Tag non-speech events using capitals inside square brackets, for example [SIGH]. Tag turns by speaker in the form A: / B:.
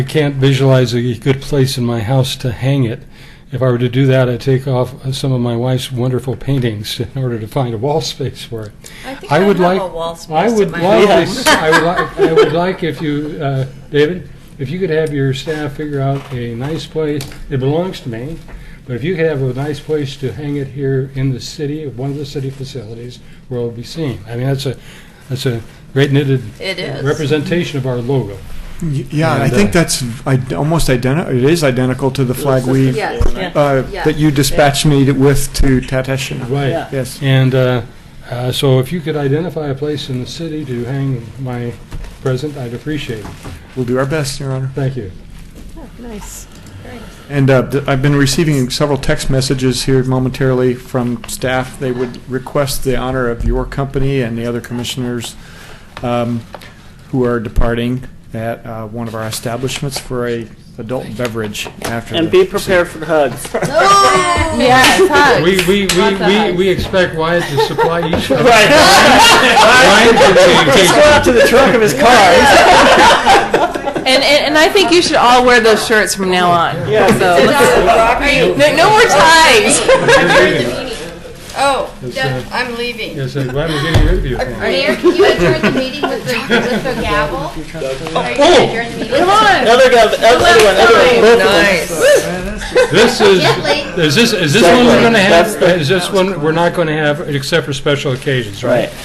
A: I can't visualize a good place in my house to hang it. If I were to do that, I'd take off some of my wife's wonderful paintings in order to find a wall space for it.
B: I think
A: I
B: I
A: would
B: have
A: like-
B: a wall space
A: I would
B: in my
A: love
B: home.
A: this, I would like, I would like if you, uh, David, if you could have your staff figure out a nice place, it belongs to me, but if you could have a nice place to hang it here in the city, one of the city facilities where it'll be seen. I mean, that's a, that's a great knitted
B: It is.
A: representation of our logo.
C: Y- Yeah, and I
A: And,
C: think
A: uh,
C: that's id- almost identical, it is identical to the flag we, uh,
D: Yes, yeah. yeah.
C: that you dispatched me to- with to Tateshina.
A: Right.
D: Yeah.
C: Yes.
A: And uh, uh, so if you could identify a place in the city to hang my present, I'd appreciate it.
C: We'll do our best, Your Honor.
A: Thank you.
D: Nice.
C: And uh, th- I've been receiving several text messages here momentarily from staff. They would request the honor of your company and the other commissioners um, who are departing at uh, one of our establishments for a adult beverage after.
E: And
C: the-
E: be prepared for [LAUGHS] hugs.
F: [LAUGHS]
D: Yes, hugs.
A: We, we,
D: Lots of
A: we, we,
D: hugs.
A: we expect Wyatt to supply each
E: [LAUGHS]
A: other.
E: Right. Just go out to the trunk of his car.
F: And, and and I think you should all wear those shirts from now on.
E: Yeah.
F: So let's- no, no more ties.
D: Oh,
A: Yes,
D: yeah,
E: [LAUGHS]
A: sir.
D: I'm leaving.
A: Yes, I'm glad we're getting rid of you.
G: Mayor, can you adjourn the meeting with the, with the gavel? Are you gonna
A: Oh,
G: adjourn the meeting?
F: Come on.
E: Another guy, another one, another one.
B: Nice.
A: This is,
G: Gently.
A: is this, is this one we're gonna have,
E: That's the-
A: is this one we're not gonna have, except for special occasions, right?
E: Right.